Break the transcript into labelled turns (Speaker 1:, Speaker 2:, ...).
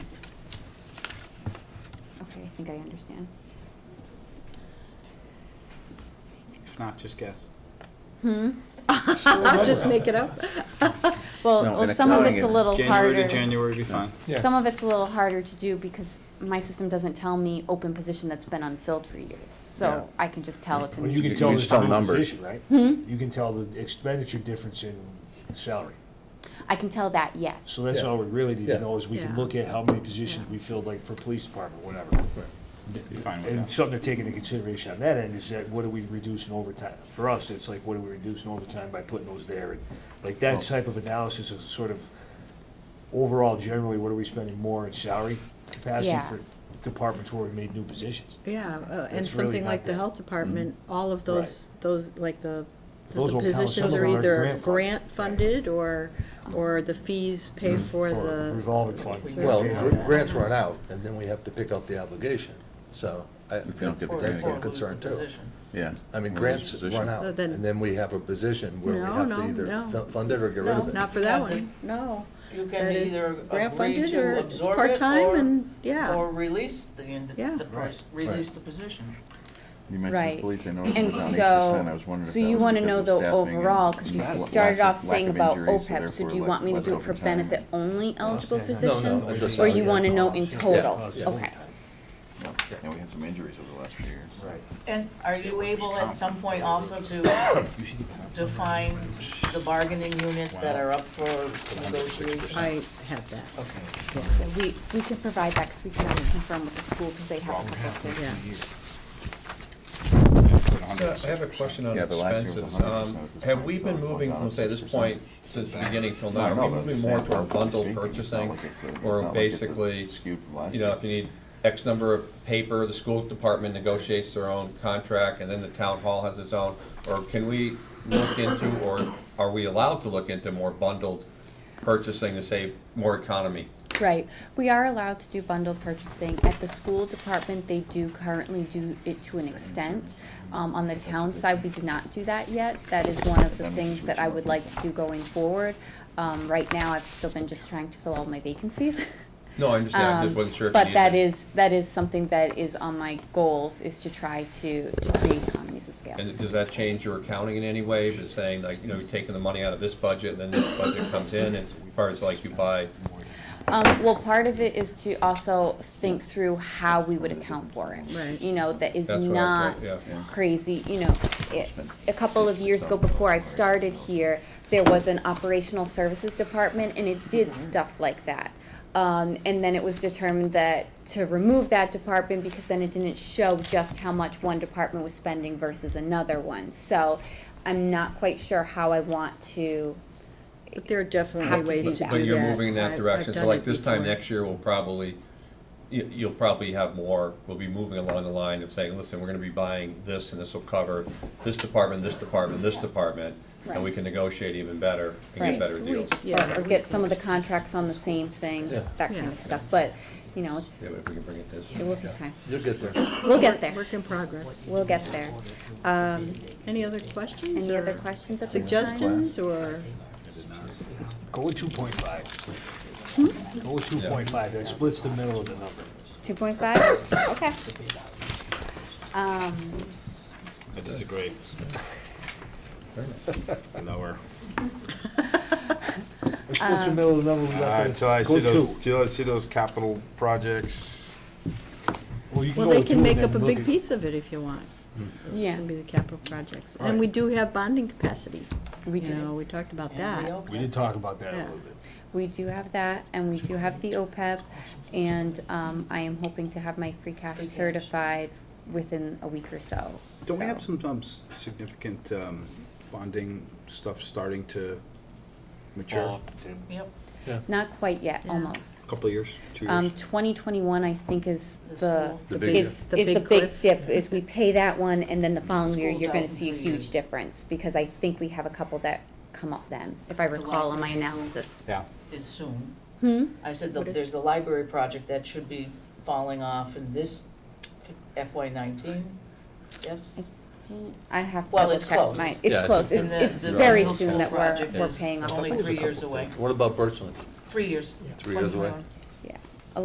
Speaker 1: think I understand.
Speaker 2: If not, just guess.
Speaker 1: Hmm?
Speaker 3: I'll just make it up.
Speaker 1: Well,
Speaker 4: No,
Speaker 1: well,
Speaker 4: and
Speaker 1: some of
Speaker 4: accounting
Speaker 1: it's a
Speaker 4: is
Speaker 1: little harder.
Speaker 2: January to January would be fine.
Speaker 5: Yeah.
Speaker 1: Some of it's a little harder to do because my system doesn't tell me open position that's been unfilled for years. So
Speaker 4: Yeah.
Speaker 1: I can just tell it's
Speaker 3: Well,
Speaker 1: an.
Speaker 3: you can
Speaker 4: You
Speaker 3: tell
Speaker 4: can
Speaker 3: the
Speaker 4: just tell
Speaker 3: difference,
Speaker 4: numbers.
Speaker 3: right?
Speaker 1: Hmm?
Speaker 3: You can tell the expenditure difference in in salary.
Speaker 1: I can tell that, yes.
Speaker 3: So that's
Speaker 5: Yeah.
Speaker 3: all we really need
Speaker 5: Yeah.
Speaker 3: to know is we can
Speaker 6: Yeah.
Speaker 3: look at how many positions
Speaker 6: Yeah.
Speaker 3: we filled, like for police department, whatever.
Speaker 2: Be fine with
Speaker 3: And
Speaker 2: that.
Speaker 3: something to take into consideration on that end is that what are we reducing overtime? For us, it's like, what are we reducing overtime by putting those there? And Like that type of analysis is sort of, overall generally, what are we spending more in salary capacity
Speaker 1: Yeah.
Speaker 3: for departments where we made new positions?
Speaker 6: Yeah, uh, and
Speaker 3: It's really
Speaker 6: something
Speaker 3: not
Speaker 6: like the
Speaker 3: that-
Speaker 6: health department, all of those, those, like the, the
Speaker 3: Those will count. Some
Speaker 6: positions
Speaker 3: of
Speaker 6: are
Speaker 3: them are
Speaker 6: either
Speaker 3: grant funded.
Speaker 6: grant funded or, or the fees pay for the,
Speaker 3: Mm-hmm. Revolving funds.
Speaker 5: Well,
Speaker 6: Yeah.
Speaker 5: gr- grants run out, and then we have to pick up the obligation, so I,
Speaker 4: If you don't
Speaker 5: that's
Speaker 4: get the
Speaker 5: that's
Speaker 4: grant.
Speaker 5: a concern too.
Speaker 4: Yeah.
Speaker 5: I mean,
Speaker 4: Or
Speaker 5: grants
Speaker 4: position.
Speaker 5: run out,
Speaker 6: So then-
Speaker 5: and then we have a position where we
Speaker 6: No,
Speaker 5: have
Speaker 6: no,
Speaker 5: to either
Speaker 6: no.
Speaker 5: fu- fund it or get rid
Speaker 6: no,
Speaker 5: of it.
Speaker 6: not for that
Speaker 7: Something.
Speaker 6: one, no.
Speaker 7: You
Speaker 6: That
Speaker 7: can
Speaker 6: is
Speaker 7: either
Speaker 6: grant
Speaker 7: agree
Speaker 6: funded or
Speaker 7: to
Speaker 6: it's
Speaker 7: absorb it
Speaker 6: part-time
Speaker 7: or,
Speaker 6: and, yeah.
Speaker 7: or release the, ind-
Speaker 6: Yeah.
Speaker 7: the, pers-
Speaker 5: Right.
Speaker 7: release the position.
Speaker 4: You
Speaker 1: Right.
Speaker 4: mentioned police, I know
Speaker 1: And
Speaker 4: it's down eight
Speaker 1: so-
Speaker 4: percent, I was wondering if
Speaker 1: So
Speaker 4: that
Speaker 1: you
Speaker 4: was
Speaker 1: wanna
Speaker 4: because
Speaker 1: know
Speaker 4: of
Speaker 1: the
Speaker 4: staffing and
Speaker 1: overall, cause you
Speaker 4: lack-
Speaker 1: started
Speaker 4: lack
Speaker 1: off saying
Speaker 4: of
Speaker 1: about E
Speaker 4: injuries,
Speaker 1: OPEB,
Speaker 4: so
Speaker 1: so do you
Speaker 4: therefore
Speaker 1: want me to
Speaker 4: less
Speaker 1: do it for
Speaker 4: overtime.
Speaker 1: benefit only eligible
Speaker 3: Yeah. No, no,
Speaker 1: positions?
Speaker 5: I just-
Speaker 1: Or you
Speaker 5: yeah.
Speaker 1: wanna know in
Speaker 3: Yeah.
Speaker 1: total?
Speaker 3: Yeah.
Speaker 1: Okay.
Speaker 4: Yeah, and we had some injuries over the last few years.
Speaker 3: Right.
Speaker 7: And are you able at some point also to
Speaker 3: You should
Speaker 7: define the bargaining units that are up for negotiation?
Speaker 6: I have that,
Speaker 7: Okay.
Speaker 1: Yeah, We, we can provide that, cause we can always confirm with the school, cause they have a couple too.
Speaker 6: yeah.
Speaker 8: So Uh, I have a question on
Speaker 4: Yeah, but last year was
Speaker 8: expenses.
Speaker 4: 100%,
Speaker 8: Um, Have we
Speaker 4: so it's
Speaker 8: been moving
Speaker 4: gone
Speaker 8: from, say, this point
Speaker 4: 6%.
Speaker 8: since the beginning till
Speaker 4: I
Speaker 8: now?
Speaker 4: don't
Speaker 8: Are
Speaker 4: know,
Speaker 8: we
Speaker 4: but I'm
Speaker 8: moving
Speaker 4: just
Speaker 8: more
Speaker 4: saying,
Speaker 8: toward bundle
Speaker 4: speaking, it's not
Speaker 8: purchasing?
Speaker 4: like it's a- it's not
Speaker 8: Or
Speaker 4: like it's a
Speaker 8: basically,
Speaker 4: skewed from last
Speaker 8: you know,
Speaker 4: year.
Speaker 8: if you need X number of paper, the school department negotiates their own contract, and then the town hall has its own? Or can we look into, or are we allowed to look into more bundled purchasing to save more economy?
Speaker 1: Right, we are allowed to do bundled purchasing. At the school department, they do currently do it to an extent. Um, on the town side, we do not do that yet. That is one of the things that I would like to do going forward. Um, right now, I've still been just trying to fill all my vacancies.
Speaker 8: No, I understand, I
Speaker 1: Um,
Speaker 8: just wasn't sure if you
Speaker 1: But
Speaker 8: needed-
Speaker 1: that is, that is something that is on my goals, is to try to, to create economies of scale.
Speaker 8: And does that change your accounting in any way, just saying like, you know, you're taking the money out of this budget, and then this budget comes in, as far as like you buy?
Speaker 1: Um, well, part of it is to also think through how we would account for it.
Speaker 6: Right.
Speaker 1: You know, that is
Speaker 8: That's what I
Speaker 1: not
Speaker 8: thought, yeah.
Speaker 1: crazy, you know, it, a couple of years ago before I started here, there was an operational services department and it did stuff like that. Um, and then it was determined that to remove that department because then it didn't show just how much one department was spending versus another one. So I'm not quite sure how I want to,
Speaker 6: But there are definitely
Speaker 1: Have to
Speaker 6: ways
Speaker 1: do
Speaker 6: to do
Speaker 1: that.
Speaker 6: that.
Speaker 8: But you're moving in
Speaker 6: I-
Speaker 8: that
Speaker 6: I've
Speaker 8: direction, so
Speaker 6: done
Speaker 8: like
Speaker 6: it
Speaker 8: this time
Speaker 6: before.
Speaker 8: next year, we'll probably, you, you'll probably have more, we'll be moving along the line of saying, listen, we're gonna be buying this, and this will cover this department, this department, this department, and we
Speaker 1: Right.
Speaker 8: can negotiate even better and
Speaker 1: Right.
Speaker 8: get better deals.
Speaker 1: or,
Speaker 6: Yeah.
Speaker 1: or get some of the contracts on the same thing,
Speaker 5: Yeah.
Speaker 1: that kind
Speaker 6: Yeah.
Speaker 1: of stuff, but, you know, it's,
Speaker 8: Yeah, but if we can bring it this.
Speaker 1: it will take time.
Speaker 5: You'll get there.
Speaker 1: We'll get there,
Speaker 6: Work in progress.
Speaker 1: we'll get there. Um,
Speaker 6: Any other questions
Speaker 1: any other
Speaker 6: or
Speaker 1: questions at this time?
Speaker 6: Suggestions or?
Speaker 3: Go with two point five.
Speaker 8: Hmm?
Speaker 3: Go with two point five, that splits the middle of the number.
Speaker 1: Two point five, okay. Um,
Speaker 2: I disagree. Lower.
Speaker 3: It splits
Speaker 6: Um,
Speaker 3: the middle of the number. we got
Speaker 2: Uh,
Speaker 3: there.
Speaker 2: Until I
Speaker 3: Go
Speaker 2: see those,
Speaker 3: two.
Speaker 2: until I see those capital projects.
Speaker 3: Well, you can
Speaker 6: Well,
Speaker 3: go
Speaker 6: they
Speaker 3: with
Speaker 6: can
Speaker 3: two
Speaker 6: make
Speaker 3: and
Speaker 6: up a
Speaker 3: then
Speaker 6: big
Speaker 3: look at-
Speaker 6: piece of it if you want. It
Speaker 1: yeah,
Speaker 6: can be the capital projects.
Speaker 3: Right.
Speaker 6: And we do have bonding capacity.
Speaker 1: we
Speaker 6: You know,
Speaker 1: do,
Speaker 6: we talked about
Speaker 7: And
Speaker 6: that.
Speaker 7: reopen.
Speaker 3: We did talk about that a
Speaker 6: Yeah.
Speaker 3: little bit.
Speaker 1: we do have that, and we do have the OPEB, and, um, I am hoping to have my free cash
Speaker 7: Free cash.
Speaker 1: certified within a week or so,
Speaker 2: Don't we have
Speaker 1: so.
Speaker 2: some um, s- significant um, bonding stuff starting to mature?
Speaker 7: Yep,
Speaker 1: Not quite yet,
Speaker 6: Yeah.
Speaker 1: almost.
Speaker 2: Couple of years, two
Speaker 1: Um,
Speaker 2: years?
Speaker 1: twenty twenty-one, I think, is
Speaker 7: The
Speaker 1: the,
Speaker 7: school.
Speaker 5: The big
Speaker 1: is,
Speaker 6: dip.
Speaker 1: is
Speaker 6: The
Speaker 1: the
Speaker 6: big
Speaker 1: big
Speaker 6: cliff.
Speaker 1: dip, is we pay that one, and then the following year,
Speaker 7: School's
Speaker 1: you're
Speaker 7: out
Speaker 1: gonna
Speaker 7: in
Speaker 1: see a
Speaker 7: three
Speaker 1: huge
Speaker 7: years.
Speaker 1: difference, because I think we have a couple that come up then, if I recall on my analysis.
Speaker 2: Yeah.
Speaker 7: is soon.
Speaker 1: Hmm,
Speaker 7: I said, the-
Speaker 6: What is-
Speaker 7: there's the library project that should be falling off in this FY nineteen, yes?
Speaker 1: I have to
Speaker 7: Well,
Speaker 1: double
Speaker 7: it's
Speaker 1: check
Speaker 7: close.
Speaker 1: my,
Speaker 5: Yeah, I
Speaker 1: it's
Speaker 5: think
Speaker 1: close,
Speaker 7: And
Speaker 1: it's,
Speaker 7: the-
Speaker 1: it's
Speaker 7: the
Speaker 1: very
Speaker 7: middle
Speaker 1: soon
Speaker 7: school
Speaker 1: that we're,
Speaker 7: project
Speaker 1: we're
Speaker 7: is
Speaker 1: paying off.
Speaker 7: Only
Speaker 5: There's a
Speaker 7: three years
Speaker 5: couple
Speaker 7: away.
Speaker 5: What about Birchland?
Speaker 7: Three years.
Speaker 5: Three years away?
Speaker 7: 2021.